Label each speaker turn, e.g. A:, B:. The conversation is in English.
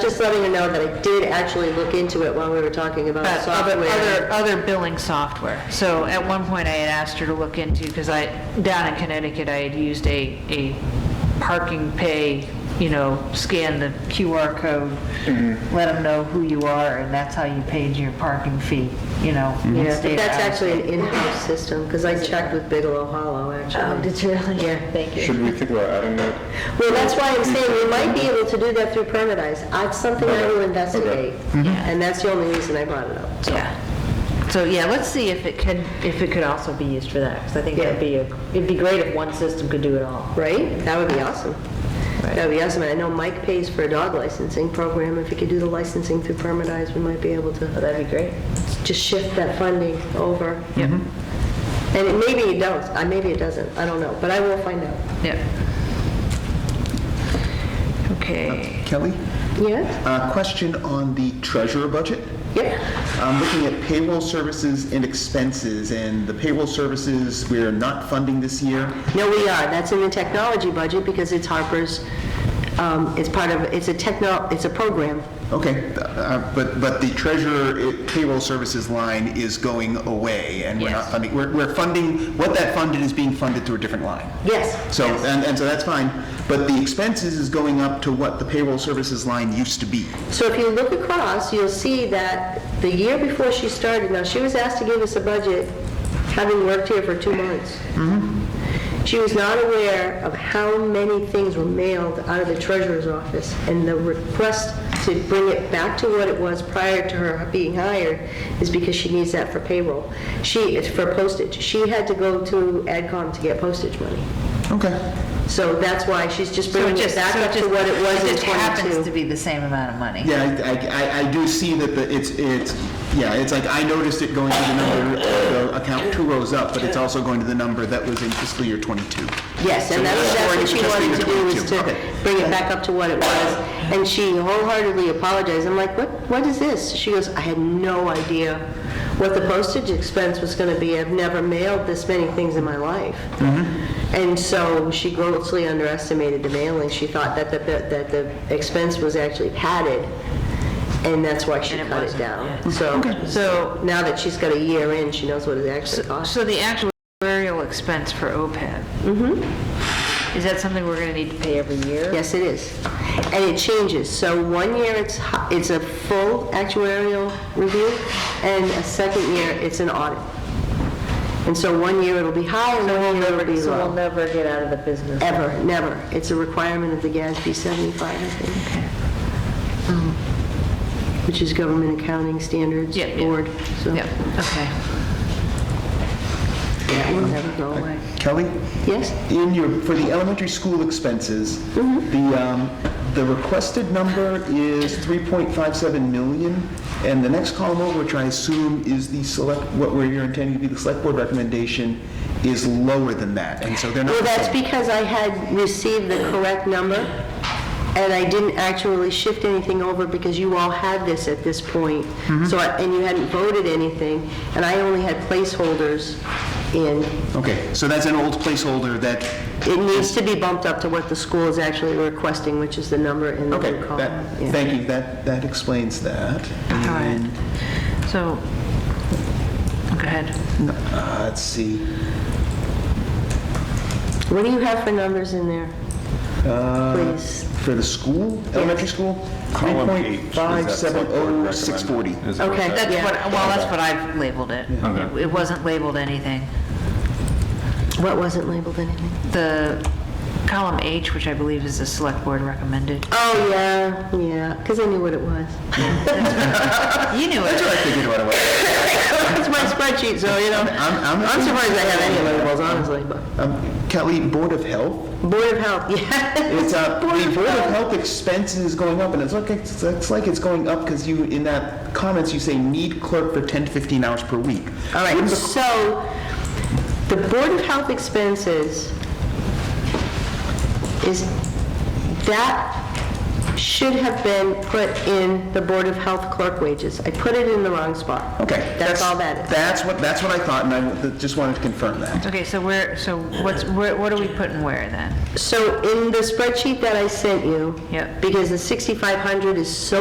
A: just letting you know that I did actually look into it while we were talking about
B: But other, other,
A: software.
B: other billing software. So at one point I had asked her to look into, because I, down in Connecticut, I had used a, a parking pay, you know, scan the QR code, let them know who you are, and that's how you paid your parking fee, you know.
A: Yeah, but that's actually an in-house system, because I checked with Bigelow Hollow,
B: Oh,
A: actually.
B: did you really? Yeah, thank you.
C: Should we think about adding that?
A: Well, that's why I'm saying we might be able to do that through Permitize. That's something I will
C: Okay. Mm-hmm.
A: investigate,
B: Yeah.
A: and that's the only reason I brought it up. so.
B: Yeah. So, yeah, let's see if it can, if it could also be used for that, because I think that'd be, a it'd be great if one system could do it all.
A: Right? That would be awesome.
B: Right.
A: That would be awesome. And I know Mike pays for a dog licensing program. If he could do the licensing through Permitize, we might be able to
B: Oh, That'd be great.
A: just shift that funding over. Yep. And it- maybe it does, Uh, maybe it doesn't, I don't know, but I will find out.
B: Yeah. Okay.
D: Kelly,
A: Yes?
D: uh, question on the treasurer budget.
A: Yep.
D: I'm looking at payroll services and expenses, and the payroll services, we're not funding this year.
A: No, we are. That's in the technology budget because it's Harper's, um, it's part of, it's a techno, it's a program.
D: Okay, uh, but, but the treasurer i- payroll services line is going away, and we're not
B: Yes.
D: funding, we're, we're funding, what that funded is being funded through a different line.
A: Yes.
D: So, and, and so that's fine, but the expenses is going up to what the payroll services line used to be.
A: So if you look across, you'll see that the year before she started, now she was asked to give us a budget, having worked here for two months.
B: Mm-hmm.
A: She was not aware of how many things were mailed out of the treasurer's office, and the request to bring it back to what it was prior to her being hired is because she needs that for payroll. She, it's for postage. She had to go to AdCom to get postage money.
D: Okay.
A: So that's why she's just
B: So
A: bringing
B: it
A: it
B: just,
A: back
B: so
A: up
B: it
A: to
B: just,
A: what it was
B: it
A: in
B: just happens to
A: 22.
B: be the same amount of money.
D: Yeah, I- I, I, I do see that the, it's, it's, yeah, it's like, I noticed it going to the number, the account two rows up, but it's also going to the number that was in fiscal year twenty-two.
A: Yes, and that's, that's what she wanted to do, is to
D: Okay.
A: bring it back up to what it was. And she wholeheartedly apologized. I'm like, what, what is this? She goes, I had no idea what the postage expense was gonna be. I've never mailed this many things in my life. And so she grossly underestimated the mailing. She thought that the, that the expense was actually padded, and that's why she
B: And it
A: cut it
B: wasn't,
A: down. So, so now that she's got a year in, she knows what it actually costs.
B: So the actuarial expense for E OPEB? Mm-hmm. Is that something we're gonna need to pay every year?
A: Yes, it is. And it changes. So one year, it's, hi- it's a full actuarial review, and a second year, it's an audit. And so one year, it'll be high, and one year, it'll be
B: So we'll
A: low.
B: never get out of the business.
A: Ever, never. It's a requirement of the GASB 75, I think. Which is Government Accounting Standards
B: Yeah, yeah.
A: Board, so
B: Yep, okay.
A: that will never go away.
D: Kelly,
A: Yes?
D: in your, for the elementary school expenses, the, um, the requested number is three point five seven million, and the next column over, which I assume is the select, what we're intending to be the select board recommendation, is lower than that, and so they're not.
A: Well, that's because I had received the correct number, and I didn't actually shift anything over because you all had this at this point. So, I- and you hadn't voted anything, and I only had placeholders in.
D: Okay, so that's an old placeholder that,
A: It needs to be bumped up to what the school is actually requesting, which is the number in the
D: okay,
A: blue column.
D: that,
A: Yeah.
D: thank you, that, that explains that.
B: All right.
D: And,
B: So, go ahead.
D: uh, Let's see,
A: What do you Uh, have for numbers in there? Please.
D: for the school, elementary school, three
C: Column eight,
D: point
C: is
D: five
C: that
D: seven
C: select board
D: oh
C: recommend-
D: six forty.
C: is what
A: Okay,
C: that-
B: That's
A: Yeah.
B: what, well, that's what I've labeled it.
C: Okay.
B: It wasn't labeled anything.
A: What wasn't labeled anything?
B: The column H, which I believe is the select board recommended,
A: Oh, yeah, yeah, because I knew what it was.
B: you knew it.
D: I figured right away.
A: It's my spreadsheet, so, you know,
D: I'm- I'm-
A: I'm surprised I have any labels, honestly, but.
D: Um, Kelly, Board of Health,
A: Board of Health, yeah.
D: it's, uh, the Board of Health expenses is going up, and it's like, it's it's like it's going up because you, in that comments, you say need clerk for ten to fifteen hours per week.
A: All right, so the Board of Health expenses is, that should have been put in the Board of Health clerk wages. I put it in the wrong spot.
D: Okay.
A: That's all that is.
D: That's what, that's what I thought, and I w- just wanted to confirm that.
B: Okay, so where, so what's, where- what are we putting where then?
A: So in the spreadsheet that I sent you.
B: Yep.
A: Because the 6,500 is so